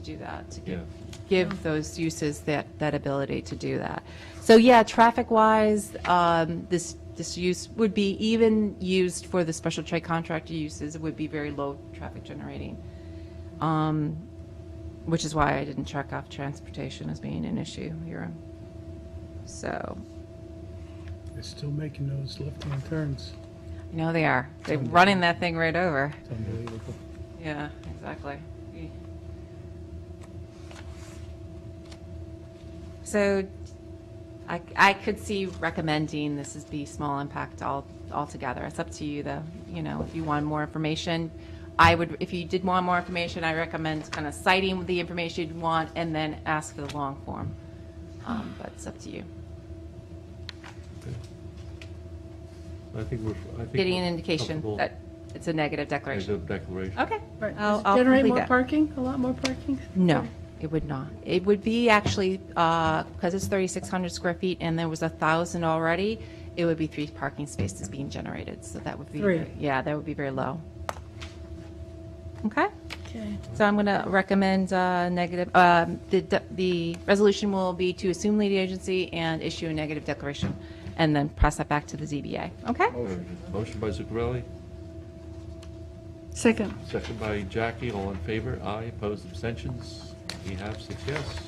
do that, to Yeah. give, give those uses that, that ability to do that. So yeah, traffic-wise, um, this, this use would be even used for the special trade contractor uses, it would be very low traffic generating. Um, Which is why I didn't check off transportation as being an issue here. So, They're still making those left-hand turns. you know they are, they're running that thing right over. It's unbelievable. Yeah, exactly. So I, I could see recommending this is be small impact all, altogether. It's up to you though, you know, if you want more information. I would, if you did want more information, I recommend kind of citing the information you'd want and then ask for the long form. Um, but it's up to you. I think we're, I think. Getting an we're indication comfortable that it's a negative As declaration. of declaration. Okay. Right, I'll- does it I'll generate complete more that. parking, a lot more parking? No, it would not. It would be actually, because it's 3,600 square feet and there was a 1,000 already, it would be three parking spaces being generated, so that would be. Three. Yeah, that would be very low. Okay, Okay. so I'm going to recommend uh, negative, um, the, de- the resolution will be to assume lead agency and issue a negative declaration, and then pass that back to the ZBA, okay? Motion by Zuccarelli, Second, second by Jackie, all in favor, aye, opposed, abstentions, we have six yes,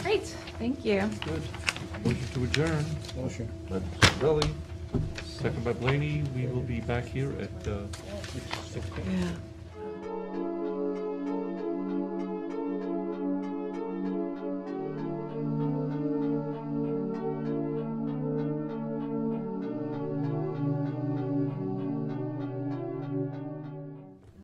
Great, thank you. good. Motion to adjourn. Motion. by Zuccarelli, second by Blaney, we will be back here at uh, yeah.